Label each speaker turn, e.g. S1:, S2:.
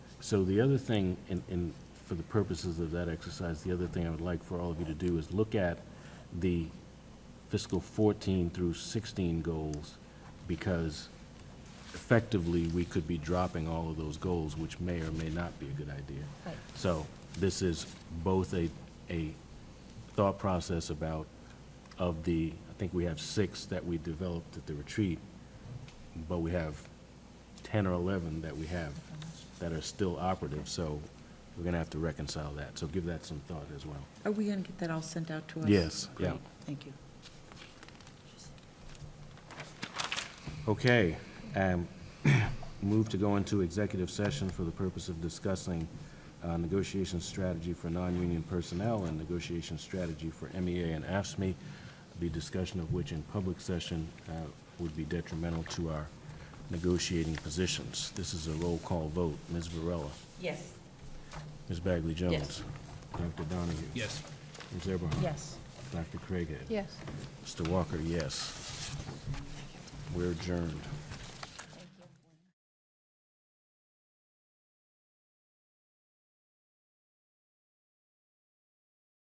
S1: So the other thing, and, and for the purposes of that exercise, the other thing I would like for all of you to do is look at the fiscal 14 through 16 goals, because effectively, we could be dropping all of those goals, which may or may not be a good idea.
S2: Right.
S1: So this is both a, a thought process about, of the, I think we have six that we developed at the retreat, but we have 10 or 11 that we have that are still operative, so we're going to have to reconcile that. So give that some thought as well.
S2: Are we going to get that all sent out to us?
S1: Yes, yeah.
S2: Great, thank you.
S1: Okay, um, move to go into executive session for the purpose of discussing uh, negotiation strategy for non-union personnel and negotiation strategy for MEA and AFSMI, E. the discussion of which in public session uh, would be detrimental to our negotiating positions. This is a roll call vote. Ms. Varela?
S2: Yes.
S1: Ms. Bagley Jones?
S2: Yes.
S1: Dr. Donahue?
S3: Yes.
S1: Ms. Eberhard?
S2: Yes.
S1: Dr. Craighead?
S4: Yes.
S1: Mr. Walker, yes. We're adjourned.